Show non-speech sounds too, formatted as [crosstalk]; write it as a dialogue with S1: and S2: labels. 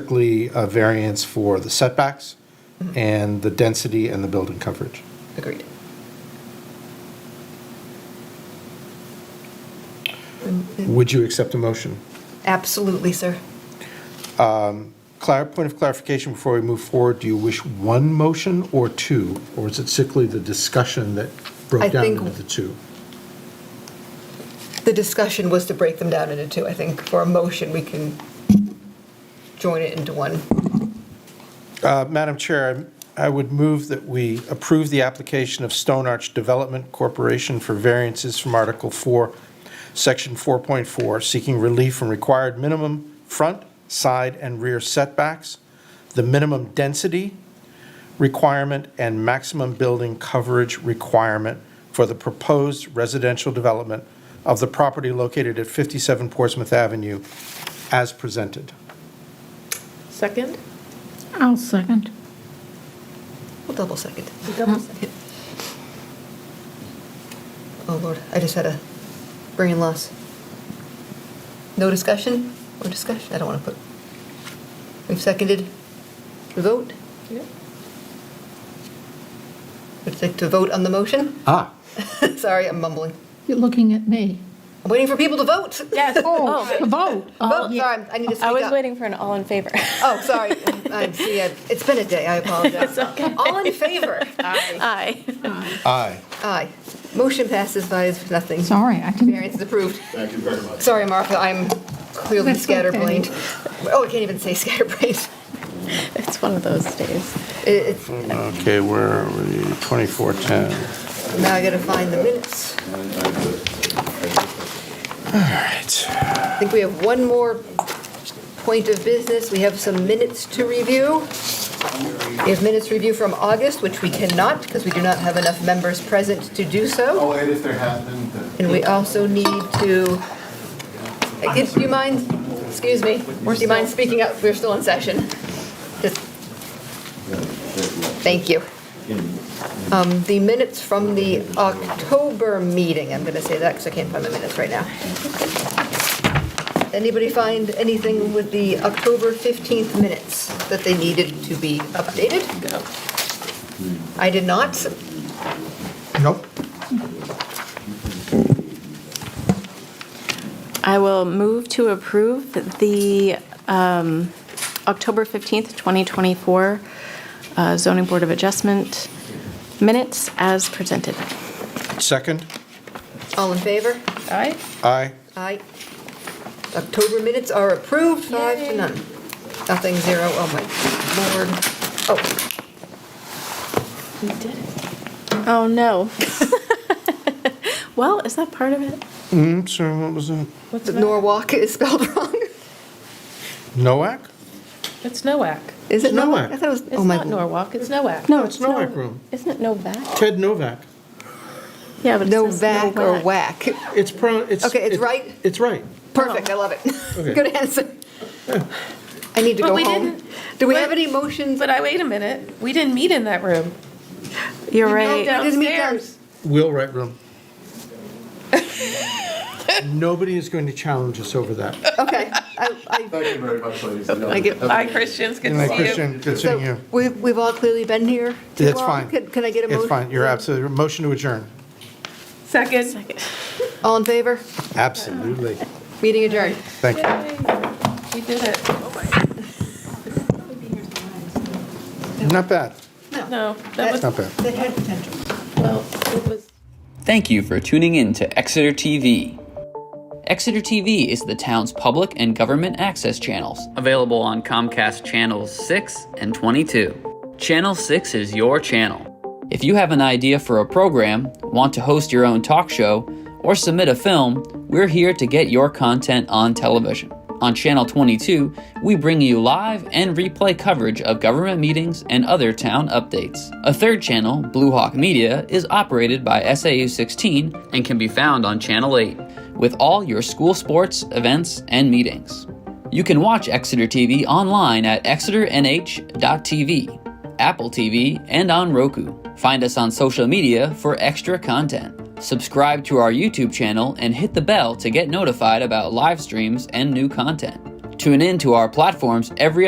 S1: strictly a variance for the setbacks and the density and the building coverage.
S2: Agreed.
S1: Would you accept a motion?
S2: Absolutely, sir.
S1: Clar, point of clarification before we move forward, do you wish one motion or two? Or is it strictly the discussion that
S2: I
S1: broke down
S2: think-
S1: into the two?
S2: The discussion was to break them down into two. I think for a motion, we can join it into one.
S1: Uh, Madam Chair, I would move that we approve the application of Stone Arch Development Corporation for variances from Article 4, Section 4.4, seeking relief from required minimum front, side, and rear setbacks, the minimum density requirement, and maximum building coverage requirement for the proposed residential development of the property located at 57 Portsmouth Avenue as presented.
S3: Second?
S4: I'll second.
S2: We'll double second.
S3: Double second.
S2: Oh, Lord, I just had a brain loss. No discussion or discussion? I don't want to put. We've seconded. We vote?
S3: Yeah.
S2: Would you like to vote on the motion? [laughs]
S1: Ah.
S2: Sorry, I'm mumbling.
S4: You're looking at me.
S2: I'm waiting for people to vote.
S5: [laughs]
S3: Yes.
S4: Oh, the vote. Oh,
S2: Vote,
S4: yeah.
S2: sorry, I need to speak
S5: I
S2: up.
S5: was waiting for an all in favor. [laughs]
S2: Oh, sorry. I see. I- It's been a day. I apologize. All in
S4: [laughs]
S2: favor?
S5: Aye.
S1: Aye.
S2: Aye. Motion passes by nothing.
S4: Sorry, I didn't.
S2: Variance is approved.
S6: Thank you very much.
S2: Sorry, Martha, I'm clearly
S4: That's okay.
S2: scatterbrained. Oh, I can't even say [laughs] scatterbrained.
S5: It's one of those days.
S2: It- it's-
S1: Okay, where are we? 2410.
S2: Now I gotta find the minutes.
S1: All right.
S2: I think we have one more point of business. We have some minutes to review. We have minutes review from August, which we cannot because we do not have enough members present to do so.
S6: Oh, and if there have been, then.
S2: And we also need to, Uh, if you mind, excuse me, do you mind speaking up? We're still in session. Just- Thank you. Um, The minutes from the October meeting, I'm going to say that because I can't find my minutes right now. Anybody find anything with the October 15th minutes that they needed to be updated? I did not.
S1: Nope.
S5: I will move to approve the um, October 15th, 2024 uh, zoning board of adjustment minutes as presented.
S1: Second?
S2: All in favor?
S3: Aye.
S1: Aye.
S2: Aye. October minutes are approved, five to none. Nothing, zero, oh my lord. Oh,
S5: We did it. Oh, no. [laughs] Well, is that part of it?
S1: Mm, so what was that?
S3: What's
S2: the
S3: that?
S2: Norwalk is spelled [laughs] wrong.
S1: Nowak?
S3: It's NOAC.
S2: Is it Norwalk?
S1: Norwalk.
S2: I thought it was,
S5: It's
S2: oh my.
S5: not
S2: lord.
S5: Norwalk. It's no.
S3: NOAC.
S5: No,
S1: it's
S5: it's
S1: Novak
S5: Novak
S1: Room.
S5: Isn't it Novak?
S1: Ted Novak.
S5: Yeah, but it says
S2: Novak or
S5: Novak.
S2: whack.
S1: It's pro, it's.
S2: Okay, it's
S1: it-
S2: right?
S1: It's right.
S2: Perfect, I love it.
S1: Okay.
S2: [laughs] Good answer. I need to
S3: But
S2: go
S3: we
S2: home.
S3: didn't-
S2: Do we
S3: but-
S2: have any motions?
S3: But I, wait a minute, we didn't meet in that room.
S5: You're
S3: We
S5: right.
S3: met
S2: didn't meet
S3: downstairs.
S1: Will Wright
S2: [laughs]
S1: Room. Nobody is going to challenge us over that.
S2: Okay. I-
S1: [laughs]
S2: I-
S6: Thank you very much, ladies and gentlemen.
S2: Thank you.
S6: Have a
S3: Hi, Christians, good
S1: And like
S3: to see you.
S1: Christian, good
S2: So
S1: seeing you.
S2: we- We've all clearly been here. too
S1: That's
S2: long.
S1: fine.
S2: Can can I get a motion?
S1: It's fine, you're absolutely, motion to adjourn.
S3: Second.
S2: All in favor?
S1: Absolutely.
S2: Meeting adjourned.
S1: Thank you.
S3: Yay. We did it.
S1: Not bad,
S3: No, that was,
S1: not bad.
S2: That had potential.
S3: well, it was.
S7: Thank you for tuning in to Exeter TV. Exeter TV is the town's public and government access channels, available on Comcast Channels 6 and 22. Channel 6 is your channel. If you have an idea for a program, want to host your own talk show, or submit a film, we're here to get your content on television. On Channel 22, we bring you live and replay coverage of government meetings and other town updates. A third channel, Blue Hawk Media, is operated by SAU 16 and can be found on Channel 8 with all your school sports, events, and meetings. You can watch Exeter TV online at exeternh.tv, Apple TV, and on Roku. Find us on social media for extra content. Subscribe to our YouTube channel and hit the bell to get notified about live streams and new content. Tune in to our platforms every